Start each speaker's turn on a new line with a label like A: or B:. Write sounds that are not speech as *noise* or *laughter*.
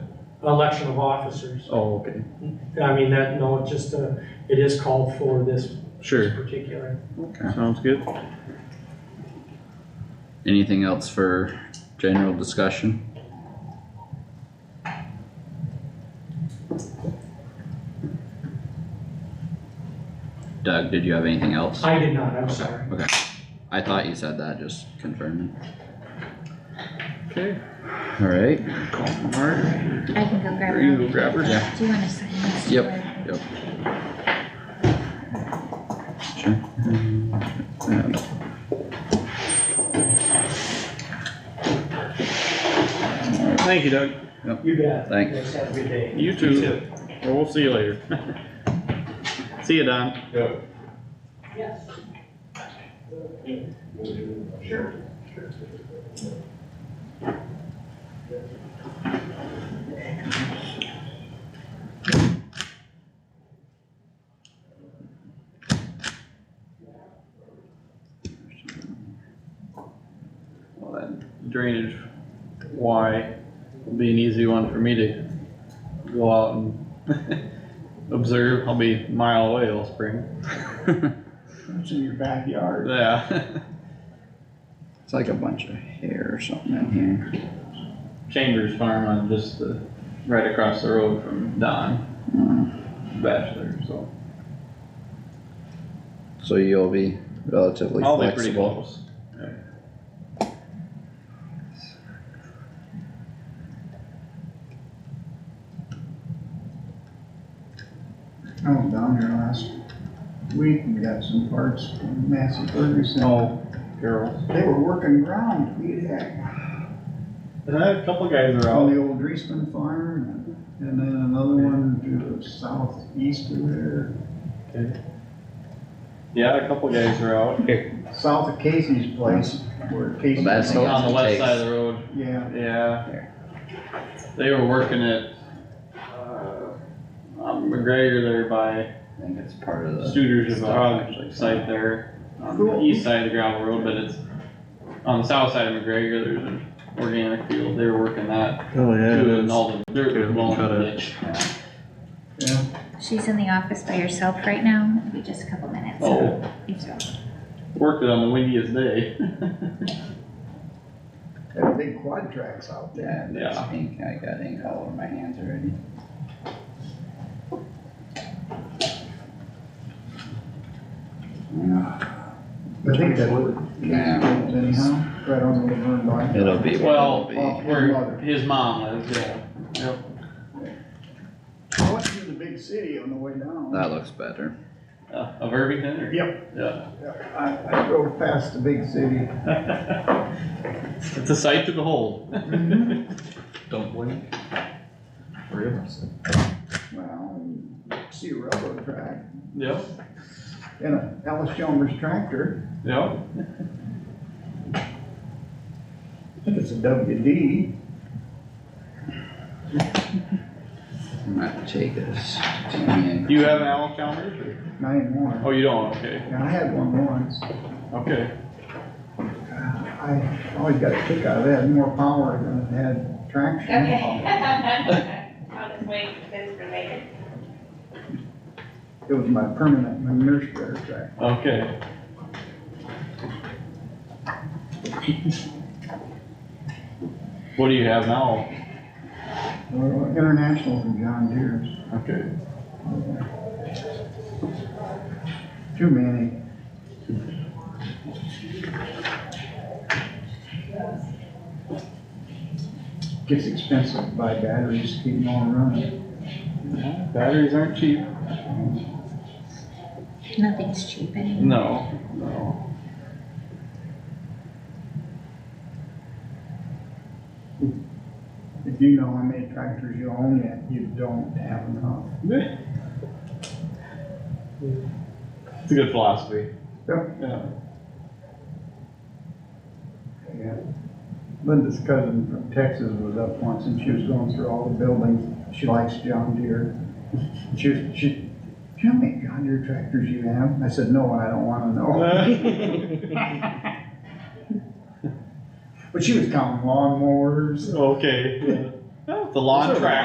A: election of officers.
B: Oh, okay,
A: I mean, that, no, it just, uh, it is called for this
B: sure,
A: particular.
B: Okay. sounds good.
C: Anything else for general discussion? Doug, did you have anything else?
A: I did not, I'm sorry.
C: Okay, I thought you said that, just confirming.
B: Okay,
C: Alright,
B: alright,
D: I can go grab
B: are you
D: it.
B: go grab her?
C: yeah,
D: Do you wanna sign this?
C: Yep.
D: or-
C: yep. Sure. Um,
B: Thank you, Doug.
A: You bet.
C: Thanks.
A: Have a good day.
B: You too. Well, we'll see you later. *laughs* See you, Don. Well, that drainage Y will be an easy one for me to go out and observe. I'll be a mile away all
C: *laughs*
B: spring.
E: It's in your backyard.
B: Yeah. *laughs*
C: It's like a bunch of hair or something in here.
B: Chambers Farm on just the, right across the road from Don
C: Mm.
B: Bachelor, so.
C: So you'll be relatively
B: I'll be pretty
C: flexible.
B: close.
E: I went down there last week and got some parts from Massey Ferguson.
B: Oh, girls.
E: They were working ground, we'd had,
B: And I had a couple guys are
E: on
B: out.
E: the old Dreesman farm, and then another one to the southeast of there,
B: Yeah, a couple guys are out.
E: south of Casey's place, where Casey.
C: Well, that's-
B: On the west side of the road.
E: Yeah,
B: Yeah. They were working at, uh, on McGregor there by
C: I think it's part of the.
B: Studer's
C: stuff actually.
B: Hog site there. On the
E: Cool.
B: east side of the gravel road, but it's on the south side of McGregor, there's an organic field. They were working that
F: Oh,
B: too and
F: yeah.
B: all the dirt
F: Could've
B: was
F: been
B: blowing
F: cut
B: in the
F: up.
B: ditch.
E: yeah,
D: She's in the office by herself right now, it'll be just a couple minutes. so-
B: Oh,
D: so-
B: worked it on the windiest day.
E: had big quad tracks out there.
C: Yeah,
B: Yeah.
C: that's ink, I got ink all over my hands already. Mm,
E: I think that would,
C: Yeah.
E: anyhow, right on the burn line.
C: It'll be,
B: Well,
C: what it'll be.
B: where his mom lives, yeah. Yep.
E: I went through the big city on the way down.
C: That looks better.
B: Uh, Of Irvington or?
E: Yep,
B: Yeah.
E: I, I drove past the big city.
B: It's a sight to behold.
F: Don't blink. Really?
E: Well, see a railroad track
B: Yep,
E: and a Alice Chalmers tractor,
B: yep.
E: I think it's a WD.
C: I'm gonna take this. tan.
B: Do you have an Allen Chalmers or?
E: Nine one.
B: Oh, you don't, okay,
E: And I had one once.
B: okay.
E: I always got a kick out of it, had more power than it had traction.
G: Okay. I'll just wait for this for later.
E: It was my permanent, my nurse bear track.
B: Okay. *laughs* What do you have now?
E: Well, International from John Deere's.
B: Okay.
E: Too many. Gets expensive to buy batteries, to keep them all running.
B: Batteries aren't cheap.
D: Nothing's cheap anymore.
B: No, no.
E: If you know how many tractors you own yet, you don't have enough.
B: It's a good *laughs* philosophy.
E: Yep.
B: Yeah.
E: Yeah. Linda's cousin from Texas was up once and she was going through all the buildings. She likes John Deere. And She was, she, do you know how many John Deere tractors you have? I said, no, and I don't wanna
B: *laughs*
E: know. But she was counting lawnmowers
B: Okay. The lawn
E: Sure.
B: track.